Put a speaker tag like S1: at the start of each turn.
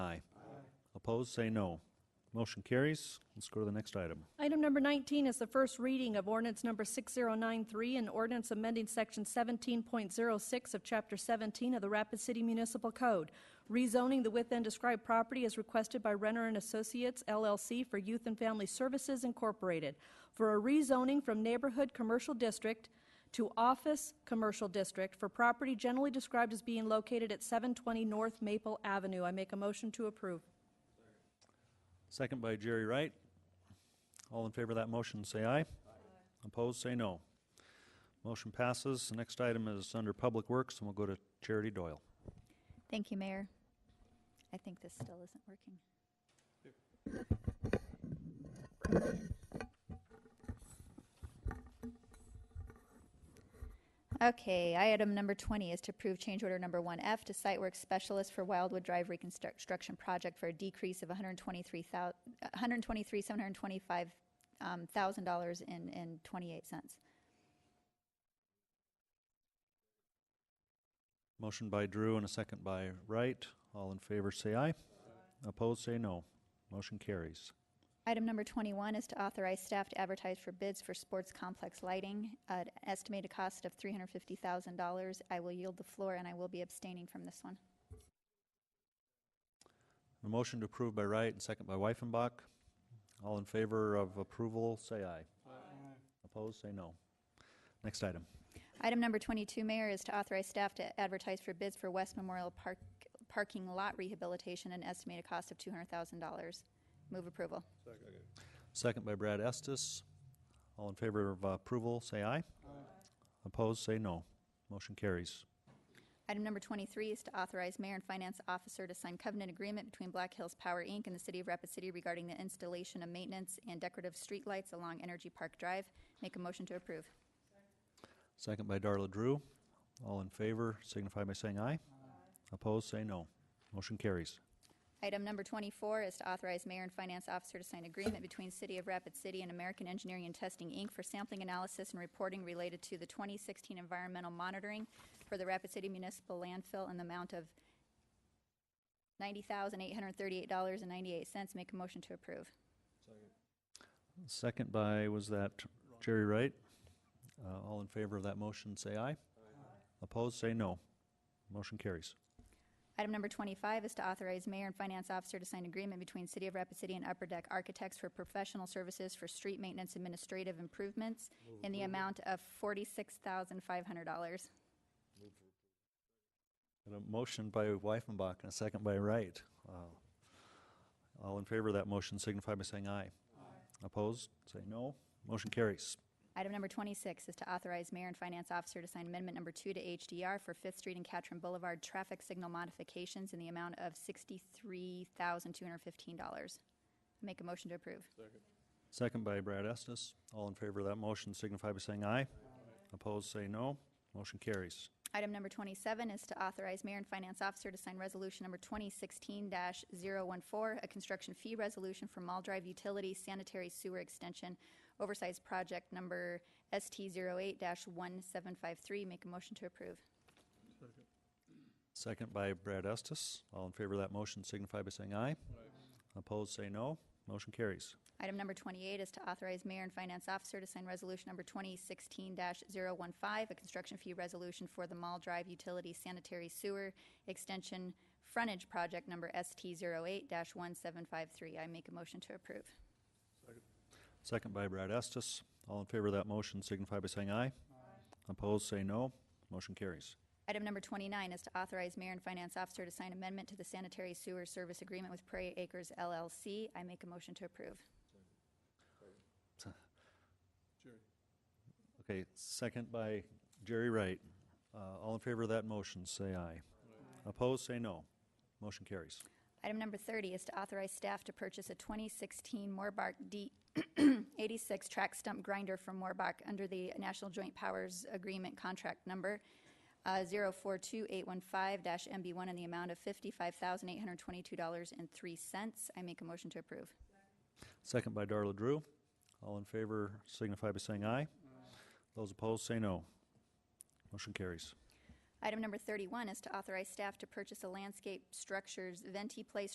S1: Opposed, say no. Motion carries. Let's go to the next item.
S2: Item number 19 is the first reading of ordinance number 6093, an ordinance amending section 17.06 of chapter 17 of the Rapid City Municipal Code, rezoning the within described property as requested by Renner and Associates LLC for Youth and Family Services Incorporated for a rezoning from neighborhood commercial district to office commercial district for property generally described as being located at 720 North Maple Avenue. I make a motion to approve.
S1: Second by Jerry Wright. All in favor of that motion, say aye. Opposed, say no. Motion passes. The next item is under Public Works, and we'll go to Charity Doyle.
S3: Thank you, Mayor. I think this still isn't working. Okay, item number 20 is to approve change order number 1F to site work specialist for Wildwood Drive reconstruction project for a decrease of 123,000 $123,725,000 um, and and 28 cents.
S1: Motion by Drew and a second by Wright. All in favor, say aye. Opposed, say no. Motion carries.
S3: Item number 21 is to authorize staff to advertise for bids for sports complex lighting at estimated cost of $350,000. I will yield the floor and I will be abstaining from this one.
S1: A motion to approve by Wright and second by Wyffenbach. All in favor of approval, say aye. Aye. Opposed, say no. Next item.
S3: Item number 22, Mayor, is to authorize staff to advertise for bids for West Memorial Park parking lot rehabilitation and estimated cost of $200,000. Move approval.
S1: Second by Brad Estes. All in favor of uh, approval, say aye. Aye. Opposed, say no. Motion carries.
S3: Item number 23 is to authorize Mayor and Finance Officer to sign covenant agreement between Black Hills Power, Inc. and the City of Rapid City regarding the installation of maintenance and decorative streetlights along Energy Park Drive. Make a motion to approve.
S1: Second by Darla Drew. All in favor signify by saying aye. Opposed, say no. Motion carries.
S3: Item number 24 is to authorize Mayor and Finance Officer to sign agreement between City of Rapid City and American Engineering and Testing, Inc. for sampling analysis and reporting related to the 2016 environmental monitoring for the Rapid City Municipal Landfill in the amount of $90,838.98. Make a motion to approve.
S1: Second by, was that Jerry Wright? Uh, all in favor of that motion, say aye. Opposed, say no. Motion carries.
S3: Item number 25 is to authorize mayor and finance officer to sign agreement between City of Rapid City and Upper Deck Architects for professional services for street maintenance administrative improvements in the amount of $46,500.
S1: Got a motion by Wyffenbach and a second by Wright. Wow. All in favor of that motion signify by saying aye. Opposed, say no. Motion carries.
S3: Item number 26 is to authorize mayor and finance officer to sign amendment number two to HDR for Fifth Street and Catron Boulevard traffic signal modifications in the amount of $63,215. Make a motion to approve.
S1: Second by Brad Estes. All in favor of that motion signify by saying aye. Opposed, say no. Motion carries.
S3: Item number 27 is to authorize Mayor and Finance Officer to sign Resolution Number 2016-014, a construction fee resolution for Mall Drive Utility Sanitary Sewer Extension Oversized Project Number ST08-1753. Make a motion to approve.
S1: Second by Brad Estes. All in favor of that motion signify by saying aye. Opposed, say no. Motion carries.
S3: Item number 28 is to authorize Mayor and Finance Officer to sign Resolution Number 2016-015, a construction fee resolution for the Mall Drive Utility Sanitary Sewer Extension Frontage Project Number ST08-1753. I make a motion to approve.
S1: Second by Brad Estes. All in favor of that motion signify by saying aye. Opposed, say no. Motion carries.
S3: Item number 29 is to authorize Mayor and Finance Officer to sign amendment to the Sanitary Sewer Service Agreement with Prairie Acres LLC. I make a motion to approve.
S1: Okay, second by Jerry Wright. Uh, all in favor of that motion, say aye. Opposed, say no. Motion carries.
S3: Item number 30 is to authorize staff to purchase a 2016 Moorbach D86 track stump grinder from Moorbach under the National Joint Powers Agreement Contract Number uh, 042815-MB1 in the amount of $55,822.03. I make a motion to approve.
S1: Second by Darla Drew. All in favor signify by saying aye. Those opposed, say no. Motion carries.
S3: Item number 31 is to authorize staff to purchase a landscape structures Venti Place